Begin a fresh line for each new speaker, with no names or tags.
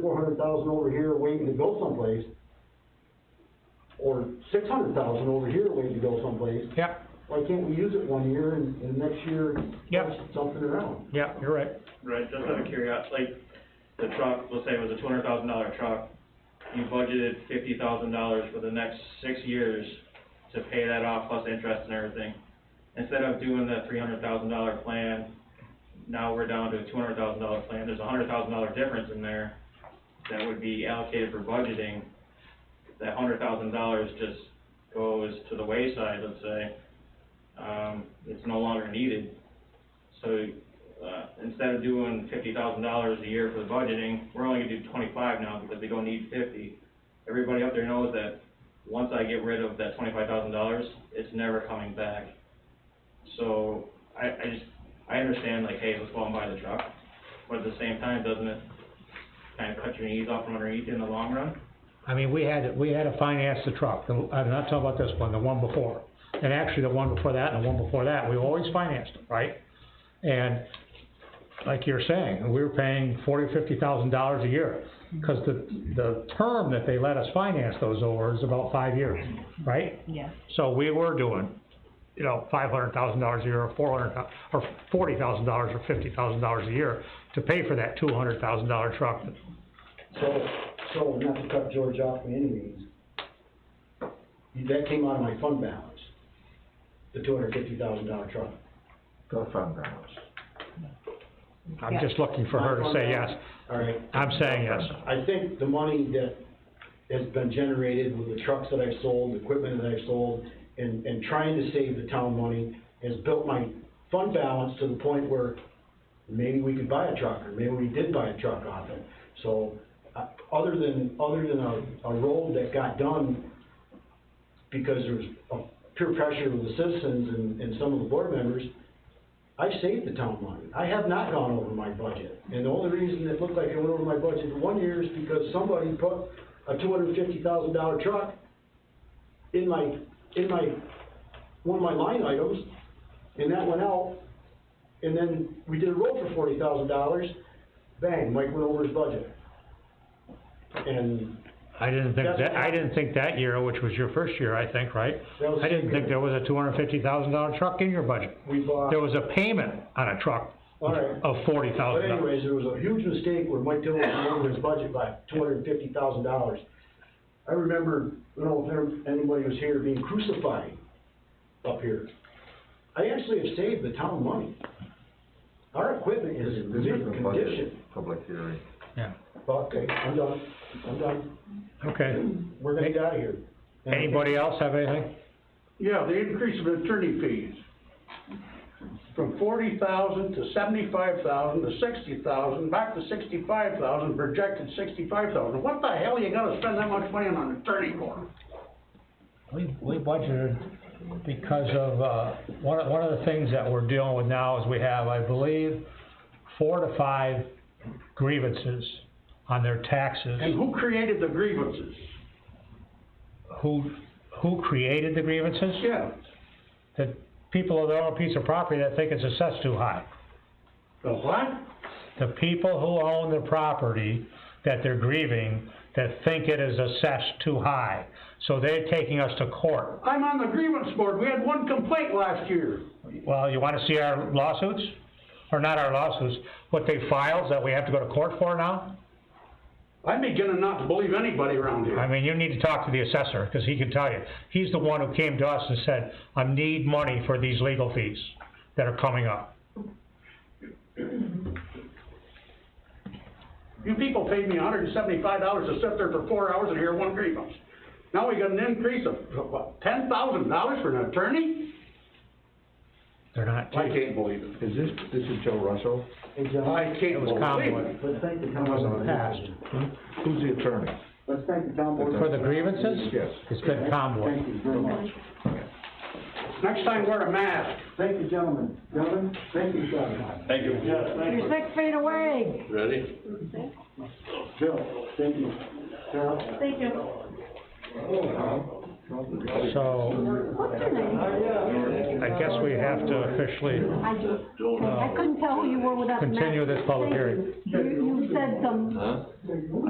four hundred thousand over here waiting to go someplace, or six hundred thousand over here waiting to go someplace,
Yep,
why can't we use it one year and, and next year,
Yep.
push something around?
yep, you're right.
Right, just out of curiosity, like, the truck, let's say it was a two hundred thousand dollar truck, you budgeted fifty thousand dollars for the next six years to pay that off plus interest and everything. Instead of doing the three hundred thousand dollar plan, now we're down to a two hundred thousand dollar plan, there's a hundred thousand dollar difference in there that would be allocated for budgeting. That hundred thousand dollars just goes to the wayside, let's say, um, it's no longer needed. So uh, instead of doing fifty thousand dollars a year for the budgeting, we're only gonna do twenty-five now because we don't need fifty. Everybody up there knows that once I get rid of that twenty-five thousand dollars, it's never coming back. So, I, I just, I understand like, hey, let's go and buy the truck, but at the same time, doesn't it kind of cut your knees off from underneath you in the long run?
I mean, we had, we had to finance the truck, The- I'm not talking about this one, the one before. And actually, the one before that and the one before that, we always financed them, right? And like you're saying, we were paying forty, or fifty thousand dollars a year. Cause the, the term that they let us finance those over is about five years, right?
Yeah.
So we were doing, you know, five hundred thousand dollars a year, or four hundred, or forty thousand dollars, or fifty thousand dollars a year to pay for that two hundred thousand dollar truck.
So, so not to cut George off by any means, that came out of my fund balance, the two hundred fifty thousand dollar truck.
The fund balance.
I'm
Yeah.
just looking for her to say yes.
All right,
I'm saying yes.
I think the money that has been generated with the trucks that I've sold, the equipment that I've sold, and, and trying to save the town money, has built my fund balance to the point where maybe we could buy a truck, or maybe we did buy a truck off it. So, uh, other than, other than a, a road that got done because there was a peer pressure with the citizens and, and some of the board members, I saved the town money. I have not gone over my budget. And the only reason it looked like I went over my budget one year is because somebody put a two hundred and fifty thousand dollar truck in my, in my, one of my line items, and that went out. And then we did a roll for forty thousand dollars, bang, Mike went over his budget. And
I didn't think
That's
that, I
what-
didn't think that year, which was your first year, I think, right?
That was
I didn't
the
think there was a two hundred fifty thousand dollar truck in your budget.
we bought,
There was a payment on a truck
all right.
of forty
But
thousand dollars.
anyways, there was a huge mistake where Mike Dillon went over his budget by two hundred and fifty thousand dollars. I remember, I don't know if there- anybody was here, being crucified up here. I actually have saved the town money. Our equipment
This
is
is
in
the
mint
budget,
condition.
public hearing.
Yeah,
Okay, I'm done, I'm done.
okay.
We're gonna get out of here. And I think-
Anybody else have anything?
Yeah, the increase of attorney fees. From forty thousand to seventy-five thousand to sixty thousand, back to sixty-five thousand, projected sixty-five thousand. What the hell you gotta spend that much money on an attorney for?
We, we budgeted because of, uh, one of, one of the things that we're dealing with now is we have, I believe, four to five grievances on their
And
taxes.
who created the grievances?
Who, who created the grievances?
Yeah,
The people that own a piece of property that think it's assessed too high.
the what?
The people who own the property that they're grieving, that think it is assessed too high. So they're taking us to court.
I'm on the grievance board. We had one complaint last year.
Well, you wanna see our lawsuits? Or not our lawsuits, what they filed that we have to go to court for now?
I'm beginning not to believe anybody around
I
here.
mean, you need to talk to the assessor, cause he can tell you. He's the one who came to us and said, I need money for these legal fees that are coming up.
You people paid me hundred and seventy-five dollars to sit there for four hours and hear one grievance. Now we got an increase of, what, ten thousand dollars for an attorney?
They're not
I can't believe it.
Is this, this is Joe Russell?
Hey, John,
I can't believe
Conway.
it.
let's thank the town.
wasn't passed.
Who's the attorney?
Let's thank the town board.
For the grievances?
Yes.
It's been Conway.
Thank you very much.
Next time, wear a mask.
Thank you, gentlemen. Gentlemen, thank you, John.
Thank you.
You're six feet away.
Bill, thank you. Carol?
Thank you.
So,
What's your name?
I guess we have to officially,
I just, I couldn't tell who you were without the mask.
Continue this public hearing.
You, you said some